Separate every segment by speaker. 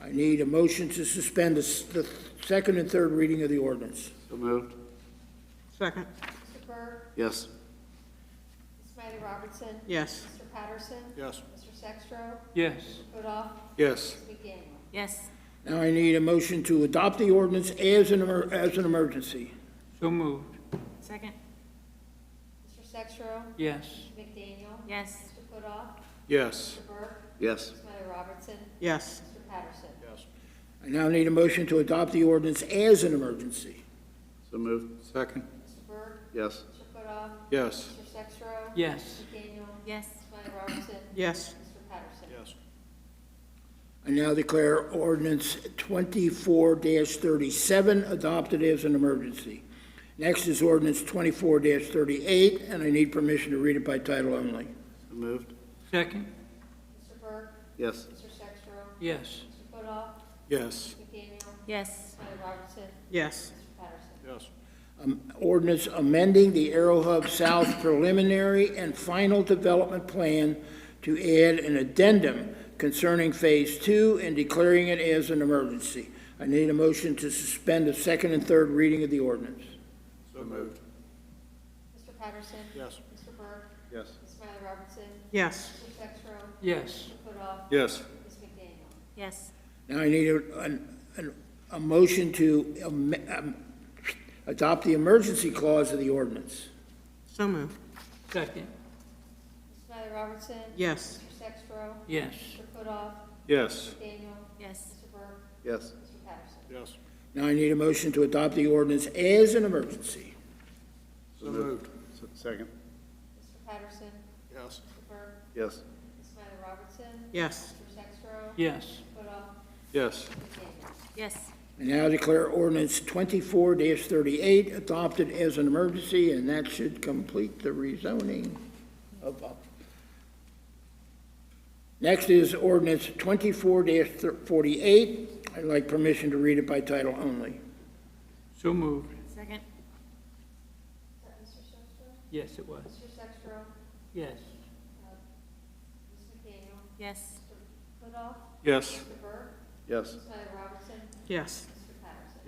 Speaker 1: I need a motion to suspend the s- the second and third reading of the ordinance.
Speaker 2: So moved.
Speaker 3: Second,
Speaker 4: Mr. Burr,
Speaker 2: Yes.
Speaker 4: Ms. Smiley Robertson,
Speaker 3: yes.
Speaker 4: Mr. Patterson,
Speaker 2: Yes.
Speaker 4: Mr. Sextro,
Speaker 5: yes,
Speaker 4: Putoff,
Speaker 2: Yes.
Speaker 4: McDaniel.
Speaker 6: yes,
Speaker 1: Now I need a motion to adopt the ordinance as an, emer- as an emergency.
Speaker 5: so moved,
Speaker 6: second,
Speaker 4: Mr. Sextro,
Speaker 5: yes,
Speaker 4: McDaniel,
Speaker 6: yes,
Speaker 4: Mr. Putoff,
Speaker 2: Yes.
Speaker 4: Mr. Burr,
Speaker 2: Yes.
Speaker 4: Ms. Smiley Robertson,
Speaker 3: Yes,
Speaker 4: Mr. Patterson.
Speaker 1: I now need a motion to adopt the ordinance as an emergency.
Speaker 2: So moved. Second.
Speaker 4: Mr. Burr,
Speaker 2: Yes.
Speaker 4: Mr. Putoff,
Speaker 2: Yes.
Speaker 4: Mr. Sextro,
Speaker 5: yes,
Speaker 4: McDaniel,
Speaker 6: yes,
Speaker 4: Ms. Smiley Robertson,
Speaker 3: yes,
Speaker 4: Mr. Patterson.
Speaker 1: I now declare ordinance twenty-four thirty-seven adopted as an emergency. Next is ordinance twenty-four thirty-eight, and I need permission to read it by title only.
Speaker 2: So moved.
Speaker 5: second,
Speaker 4: Mr. Burr,
Speaker 2: Yes.
Speaker 4: Mr. Sextro,
Speaker 5: yes,
Speaker 4: Mr. Putoff,
Speaker 2: Yes.
Speaker 4: McDaniel,
Speaker 6: yes,
Speaker 4: Ms. Smiley Robertson,
Speaker 3: yes,
Speaker 4: Mr. Patterson.
Speaker 2: Yes.
Speaker 1: Um, Ordinance amending the Arrow Hub South preliminary and final development plan to add an addendum concerning Phase Two and declaring it as an emergency. I need a motion to suspend the second and third reading of the ordinance.
Speaker 2: So moved.
Speaker 4: Mr. Patterson.
Speaker 2: Yes.
Speaker 4: Mr. Burr,
Speaker 2: Yes.
Speaker 4: Ms. Smiley Robertson,
Speaker 3: yes,
Speaker 4: Mr. Sextro,
Speaker 5: yes,
Speaker 4: Mr. Putoff,
Speaker 2: Yes.
Speaker 4: Ms. McDaniel.
Speaker 6: yes,
Speaker 1: Now I need a, an- an- a motion to am- um, adopt the emergency clause of the ordinance.
Speaker 3: so moved.
Speaker 5: second,
Speaker 4: Ms. Smiley Robertson.
Speaker 3: Yes,
Speaker 4: Mr. Sextro.
Speaker 5: yes,
Speaker 4: Mr. Putoff.
Speaker 2: Yes.
Speaker 4: McDaniel.
Speaker 6: yes,
Speaker 4: Mr. Burke.
Speaker 2: Yes.
Speaker 4: Mr. Patterson.
Speaker 2: Yes.
Speaker 1: Now I need a motion to adopt the ordinance as an emergency.
Speaker 2: So moved. Second.
Speaker 4: Mr. Patterson.
Speaker 2: Yes.
Speaker 4: Mr. Burke.
Speaker 2: Yes.
Speaker 4: Ms. Smiley Robertson.
Speaker 3: yes,
Speaker 4: Mr. Sextro.
Speaker 5: yes,
Speaker 4: Putoff.
Speaker 2: Yes.
Speaker 4: McDaniel.
Speaker 6: yes,
Speaker 1: I now declare ordinance twenty-four thirty-eight adopted as an emergency, and that should complete the rezoning of. of- Next is ordinance twenty-four forty-eight. I'd like permission to read it by title only.
Speaker 5: so moved,
Speaker 4: Is
Speaker 6: second,
Speaker 4: that Mr. Uh, Sextro?
Speaker 5: yes, it was,
Speaker 4: Mr. Sextro.
Speaker 5: yes,
Speaker 4: Ms. McDaniel.
Speaker 6: yes,
Speaker 4: Putoff.
Speaker 2: Yes.
Speaker 4: Mr. Burke.
Speaker 2: Yes.
Speaker 4: Ms. Smiley Robertson.
Speaker 3: yes,
Speaker 4: Mr. Patterson.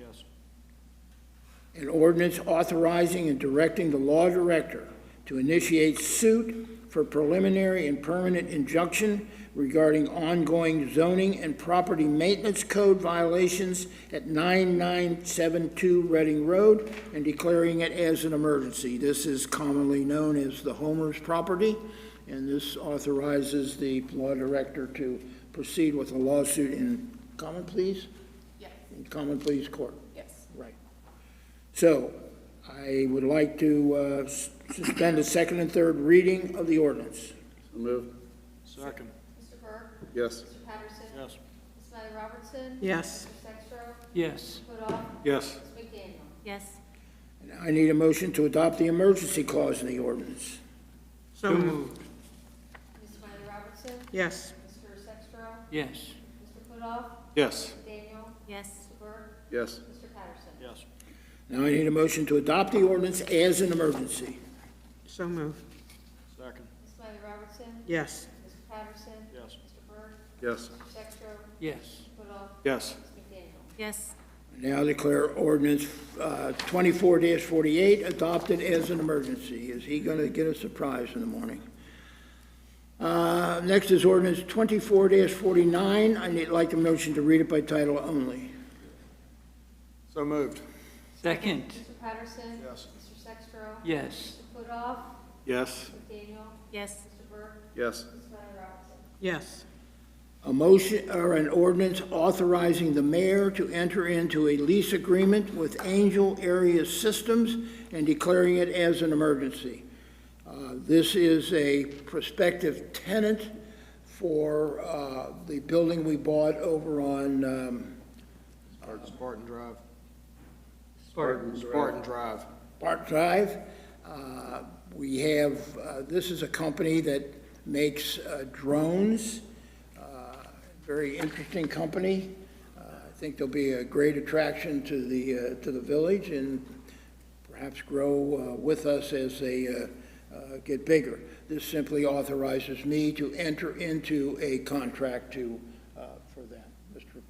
Speaker 2: Yes.
Speaker 1: An ordinance authorizing and directing the law director to initiate suit for preliminary and permanent injunction regarding ongoing zoning and property maintenance code violations at 9972 Reading Road and declaring it as an emergency. This is commonly known as the Homer's property, and this authorizes the law director to proceed with a lawsuit in common pleas?
Speaker 6: Yes.
Speaker 1: In common pleas court.
Speaker 6: yes,
Speaker 1: Right. So I would like to uh, s- suspend the second and third reading of the ordinance.
Speaker 2: So moved. Second.
Speaker 4: Mr. Burke.
Speaker 2: Yes.
Speaker 4: Mr. Patterson.
Speaker 2: Yes.
Speaker 4: Ms. Smiley Robertson.
Speaker 3: yes,
Speaker 4: Mr. Sextro.
Speaker 5: yes,
Speaker 4: Putoff.
Speaker 2: Yes.
Speaker 4: Ms. McDaniel.
Speaker 6: yes,
Speaker 1: And I need a motion to adopt the emergency clause in the ordinance.
Speaker 3: so
Speaker 5: so
Speaker 3: moved.
Speaker 5: moved,
Speaker 4: Ms. Smiley Robertson.
Speaker 3: Yes,
Speaker 4: Mr. Sextro.
Speaker 5: yes,
Speaker 4: Mr. Putoff.
Speaker 2: Yes.
Speaker 4: McDaniel.
Speaker 6: yes,
Speaker 4: Mr. Burke.
Speaker 2: Yes.
Speaker 4: Mr. Patterson.
Speaker 2: Yes.
Speaker 1: Now I need a motion to adopt the ordinance as an emergency.
Speaker 3: so moved.
Speaker 2: Second.
Speaker 4: Ms. Smiley Robertson.
Speaker 3: Yes,
Speaker 4: Mr. Patterson.
Speaker 2: Yes.
Speaker 4: Mr. Burke.
Speaker 2: Yes.
Speaker 4: Mr. Sextro.
Speaker 5: yes,
Speaker 4: Mr. Putoff.
Speaker 2: Yes.
Speaker 4: Ms. McDaniel.
Speaker 6: yes,
Speaker 1: Now declare ordinance uh, twenty-four forty-eight adopted as an emergency. Is he gonna get a surprise in the morning? Uh, Next is ordinance twenty-four forty-nine. I need, like a motion to read it by title only.
Speaker 2: So moved.
Speaker 5: second,
Speaker 4: Mr. Patterson.
Speaker 2: Yes.
Speaker 4: Mr. Sextro.
Speaker 5: yes,
Speaker 4: Mr. Putoff.
Speaker 2: Yes.
Speaker 4: McDaniel.
Speaker 6: yes,
Speaker 4: Mr. Burke.
Speaker 2: Yes.
Speaker 4: Ms. Smiley Robertson.
Speaker 3: yes,
Speaker 1: A motion, or an ordinance authorizing the mayor to enter into a lease agreement with Angel Area Systems and declaring it as an emergency. Uh, This is a prospective tenant for uh, the building we bought over on, um,
Speaker 2: Spartan Drive.
Speaker 5: Spartan.
Speaker 2: Spartan Drive.
Speaker 1: Park Drive. Uh, We have, uh, this is a company that makes uh, drones, Uh, very interesting company. Uh, I think they'll be a great attraction to the, uh, to the village and perhaps grow uh, with us as they uh, uh, get bigger. This simply authorizes me to uh, enter into a contract to